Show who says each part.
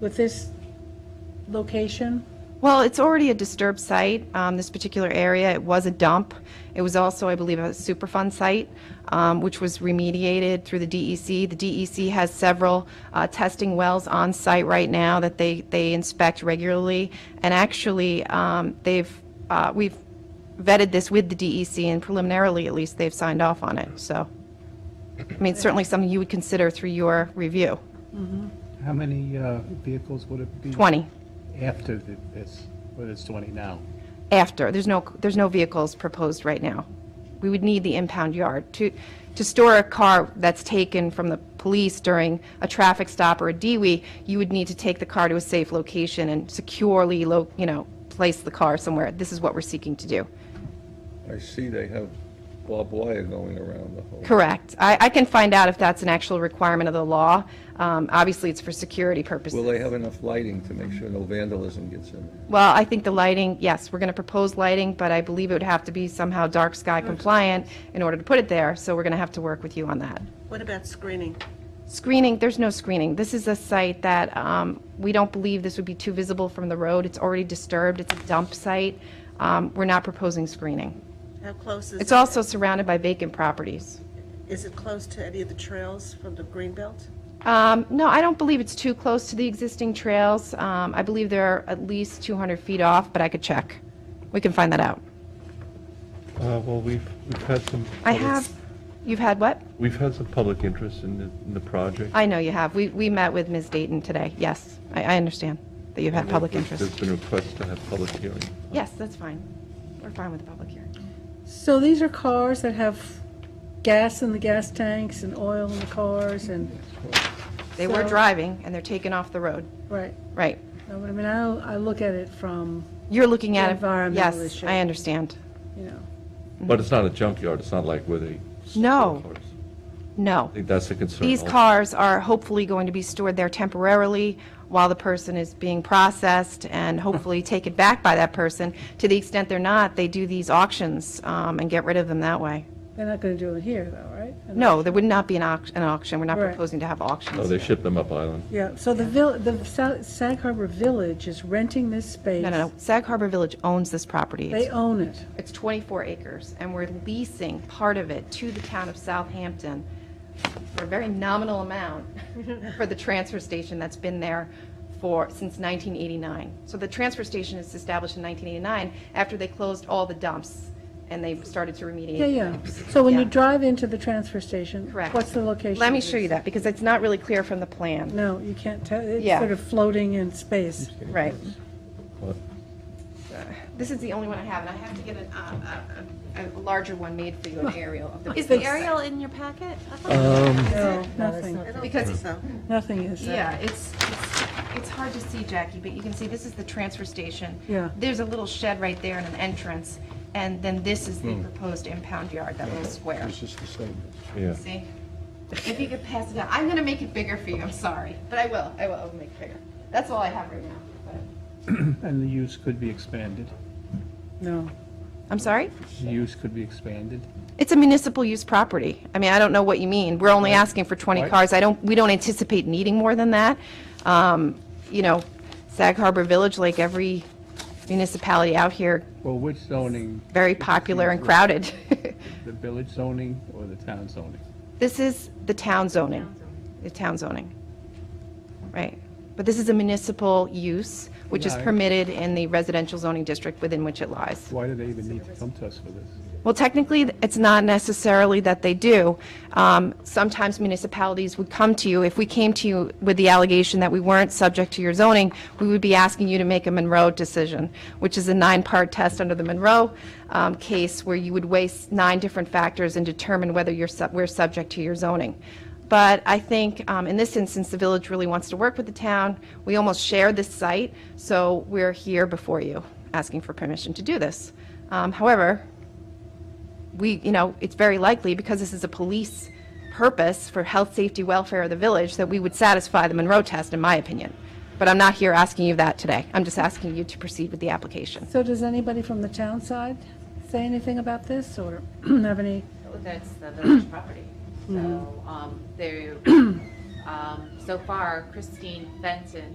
Speaker 1: with this location?
Speaker 2: Well, it's already a disturbed site, um, this particular area. It was a dump. It was also, I believe, a Superfund site, um, which was remediated through the DEC. The DEC has several uh, testing wells on site right now that they, they inspect regularly. And actually, um, they've, uh, we've vetted this with the DEC, and preliminarily, at least, they've signed off on it, so. I mean, it's certainly something you would consider through your review.
Speaker 3: How many uh, vehicles would it be?
Speaker 2: 20,
Speaker 3: After the- this, well, it's 20 now.
Speaker 2: after. There's no, there's no vehicles proposed right now. We would need the impound yard. To, to store a car that's taken from the police during a traffic stop or a DWI, you would need to take the car to a safe location and securely, lo- you know, place the car somewhere. This is what we're seeking to do.
Speaker 4: I see they have barbed wire going around the whole.
Speaker 2: Correct. I, I can find out if that's an actual requirement of the law. Um, Obviously, it's for security purposes.
Speaker 4: Will they have enough lighting to make sure no vandalism gets in there?
Speaker 2: Well, I think the lighting, yes, we're going to propose lighting, but I believe it would have to be somehow dark sky compliant in order to put it there, so we're going to have to work with you on that.
Speaker 5: What about screening?
Speaker 2: Screening, there's no screening. This is a site that um, we don't believe this would be too visible from the road. It's already disturbed, it's a dump site. Um, We're not proposing screening.
Speaker 5: How close is?
Speaker 2: It's
Speaker 5: it-
Speaker 2: also surrounded by vacant properties.
Speaker 5: Is it close to any of the trails from the Greenbelt?
Speaker 2: Um, No, I don't believe it's too close to the existing trails. Um, I believe they're at least 200 feet off, but I could check. We can find that out.
Speaker 6: Uh, Well, we've, we've had some.
Speaker 2: I
Speaker 6: public-
Speaker 2: have, you've had what?
Speaker 6: We've had some public interest in the, in the project.
Speaker 2: I know you have. We, we met with Ms. Dayton today. Yes, I, I understand that you have public
Speaker 6: There's
Speaker 2: interest.
Speaker 6: been requests to have public hearing.
Speaker 2: Yes, that's fine. We're fine with the public hearing.
Speaker 1: So these are cars that have gas in the gas tanks and oil in the cars and,
Speaker 2: They were
Speaker 1: So-
Speaker 2: driving and they're taken off the road.
Speaker 1: right.
Speaker 2: Right.
Speaker 1: I mean, I, I look at it from,
Speaker 2: You're looking at it.
Speaker 1: Environmental
Speaker 2: Yes,
Speaker 1: issue.
Speaker 2: I understand.
Speaker 1: you know,
Speaker 6: But it's not a junkyard, it's not like where they. store
Speaker 2: No.
Speaker 6: cars.
Speaker 2: No.
Speaker 6: I think that's the concern.
Speaker 2: These
Speaker 6: also.
Speaker 2: cars are hopefully going to be stored there temporarily while the person is being processed and hopefully taken back by that person. To the extent they're not, they do these auctions um, and get rid of them that way.
Speaker 1: they're not going to do it here though, right?
Speaker 2: No, there would not be an auction, an auction. We're not
Speaker 1: Right.
Speaker 2: proposing to have auctions.
Speaker 6: No, they ship them up island.
Speaker 1: Yeah, so the vill, the Sa- Sag Harbor Village is renting this space.
Speaker 2: No, no, no. Sag Harbor Village owns this property.
Speaker 1: They
Speaker 2: It's-
Speaker 1: own it.
Speaker 2: It's 24 acres, and we're leasing part of it to the town of Southampton for a very nominal amount for the transfer station that's been there for, since 1989. So the transfer station is established in 1989 after they closed all the dumps and they started to remediate.
Speaker 1: Yeah,
Speaker 2: the
Speaker 1: yeah.
Speaker 2: dumps.
Speaker 1: So when you
Speaker 2: Yeah.
Speaker 1: drive into the transfer station.
Speaker 2: Correct.
Speaker 1: What's the location?
Speaker 2: Let me
Speaker 1: of
Speaker 2: show you
Speaker 1: this?
Speaker 2: that, because it's not really clear from the plan.
Speaker 1: No, you can't tell, it's
Speaker 2: Yeah.
Speaker 1: sort of floating in space.
Speaker 2: Right. Uh,
Speaker 6: What?
Speaker 2: This is the only one I have, and I have to get an, uh, a, a a larger one made for you, an aerial of the.
Speaker 7: Is the aerial in your packet? I thought-
Speaker 1: No, nothing,
Speaker 5: I don't
Speaker 2: Because-
Speaker 5: think so.
Speaker 1: nothing is.
Speaker 2: Yeah, it's, it's, it's hard to see, Jackie, but you can see this is the transfer station.
Speaker 1: Yeah.
Speaker 2: There's a little shed right there and an entrance, and then this is
Speaker 3: Hmm.
Speaker 2: the proposed impound yard, that little square.
Speaker 4: It's just the same.
Speaker 6: Yeah.
Speaker 2: See? If you could pass it down, I'm gonna make it bigger for you, I'm sorry, but I will, I will, I will make it bigger. That's all I have right now. but-
Speaker 3: And the use could be expanded.
Speaker 1: No.
Speaker 2: I'm sorry?
Speaker 3: The use could be expanded.
Speaker 2: It's a municipal use property. I mean, I don't know what you mean. We're only asking for 20
Speaker 3: Right.
Speaker 2: cars. I don't, we don't anticipate needing more than that. Um, You know, Sag Harbor Village, like every municipality out here,
Speaker 3: Well, which zoning,
Speaker 2: very popular and crowded.
Speaker 3: the village zoning or the town zoning?
Speaker 2: This is the town zoning, the town zoning. Right. But this is a municipal use, which is
Speaker 3: Right.
Speaker 2: permitted in the residential zoning district within which it lies.
Speaker 3: Why do they even need to come to us for this?
Speaker 2: Well, technically, it's not necessarily that they do. Um, Sometimes municipalities would come to you, if we came to you with the allegation that we weren't subject to your zoning, we would be asking you to make a Monroe decision, which is a nine-part test under the Monroe um, case, where you would weigh s- nine different factors and determine whether you're, sub- we're subject to your zoning. But I think um, in this instance, the village really wants to work with the town. We almost share this site, so we're here before you, asking for permission to do this. Um, However, we, you know, it's very likely, because this is a police purpose for health, safety, welfare of the village, that we would satisfy the Monroe test, in my opinion. But I'm not here asking you that today. I'm just asking you to proceed with the application.
Speaker 1: So does anybody from the town side say anything about this or have any?
Speaker 7: That's the village property. Mm. So, um, there, um, so far Christine Fenton